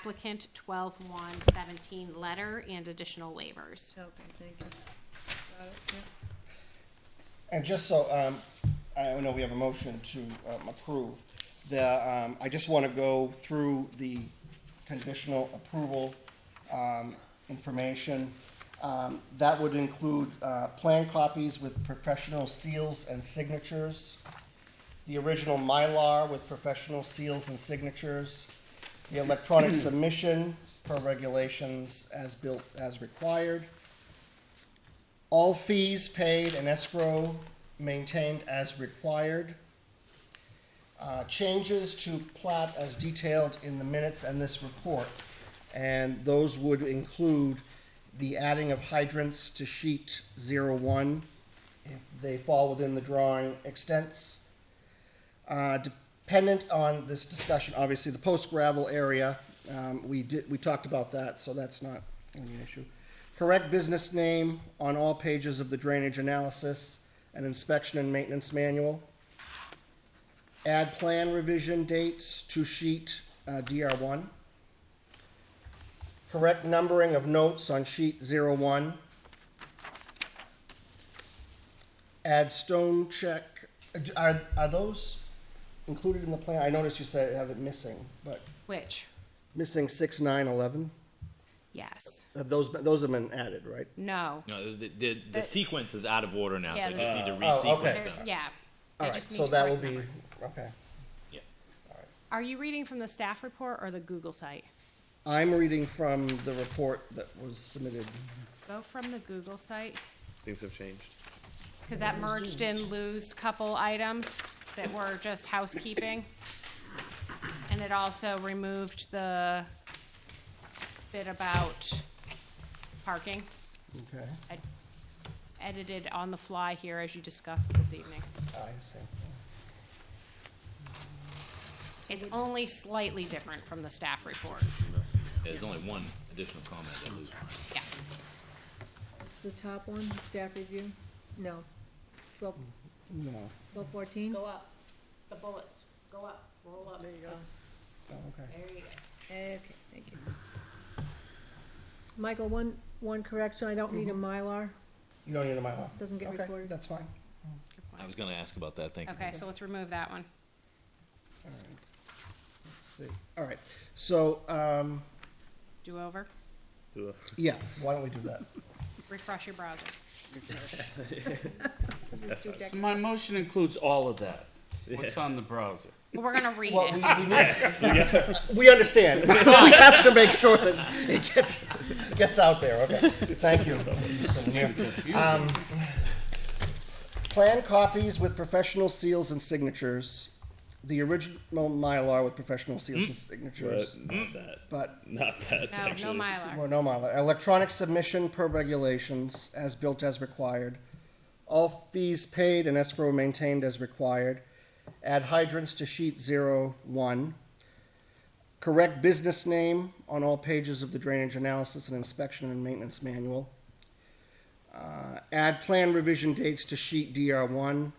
applicant twelve one seventeen letter and additional waivers. Okay, thank you. Got it, yeah. And just so, um, I know we have a motion to, um, approve, the, um, I just wanna go through the conditional approval, um, information. Um, that would include, uh, plan copies with professional seals and signatures, the original Mylar with professional seals and signatures, the electronic submission per regulations as built, as required, all fees paid and escrow maintained as required. Uh, Changes to plat as detailed in the minutes and this report. And those would include the adding of hydrants to sheet zero one, if they fall within the drawing extents. Uh, Dependent on this discussion, obviously, the post gravel area, um, we did, we talked about that, so that's not gonna be an issue. Correct business name on all pages of the drainage analysis and inspection and maintenance manual. Add plan revision dates to sheet uh, DR one. Correct numbering of notes on sheet zero one. Add stone check, are, are those included in the plan? I noticed you said have it missing, but Which, missing six, nine, eleven, yes, have those, been- those have been added, right? no, No, the, the, the sequence is out of order now, so I just need to Oh, okay. resequence there's, them. yeah. They All right, just need so to that will correct be, number. okay. Yeah. Are you reading from the staff report or the Google site? I'm reading from the report that was submitted. Go from the Google site, Things have changed. because that merged in Lou's couple items that were just housekeeping. And it also removed the bit about parking, Okay. I edited on the fly here as you discussed this evening. I see. It's only slightly different from the staff report, There's only one additional comment that was yeah. It's the top one, staff review? No. Twelve, No, twelve fourteen? up, the bullets, go up, roll up, There you go. oh, okay. there you go. Okay, thank you. Michael, one, one correction, I don't need a Mylar. You don't need a Mylar? Doesn't get Mm-hmm. Okay, recorded. That's fine. Good point. I was gonna ask about that, thank you. Okay, so let's remove that one. All right. Let's see. All right, so, um, Do over, yeah, why don't we do that? refresh your browser. This is too decorative. So my motion includes all of that. What's on the browser? Well, We're gonna read Well, it. we- we need- We understand. We have to make sure that it gets, gets out there, okay? Thank you. Um, Plan copies with professional seals and signatures, the original Mylar with professional seals and signatures, not that. but, Not that. No, no Mylar. well, no Mylar. Electronic submission per regulations, as built as required. All fees paid and escrow maintained as required. Add hydrants to sheet zero one. Correct business name on all pages of the drainage analysis and inspection and maintenance manual. Uh, add plan revision dates to sheet DR one.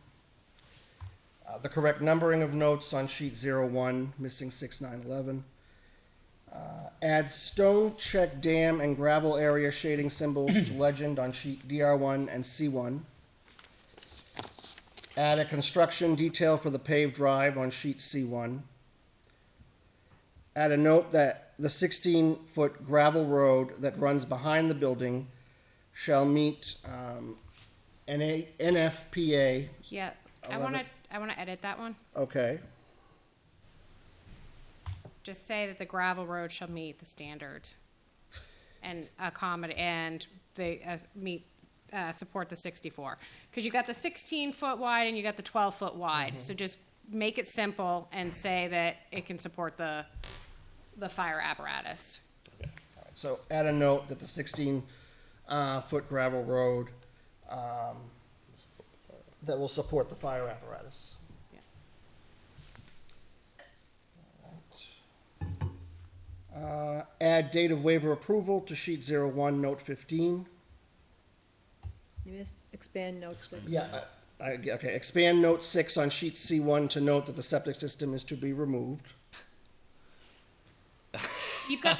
Uh, the correct numbering of notes on sheet zero one, missing six nine eleven. Add stone check dam and gravel area shading symbols to legend on sheet DR1 and C1. Add a construction detail for the paved drive on sheet C1. Add a note that the 16 foot gravel road that runs behind the building shall meet um, NA, NFPA. Yeah, I Eleven. wanna, I wanna edit that one. Okay. Just say that the gravel road shall meet the standard. And accommodate, and they, uh, meet, uh, support the sixty-four. Cause you got the sixteen foot wide and you got the twelve foot wide, so just make it simple and say that it can support the, the fire apparatus. So add a note that the 16 uh, foot gravel road um, that will support the fire apparatus. Yeah. Uh, add date of waiver approval to sheet 01, note 15. You missed expand note six. Yeah, I, I, okay, expand note six on sheet C1 to note that the septic system is to be removed. You've got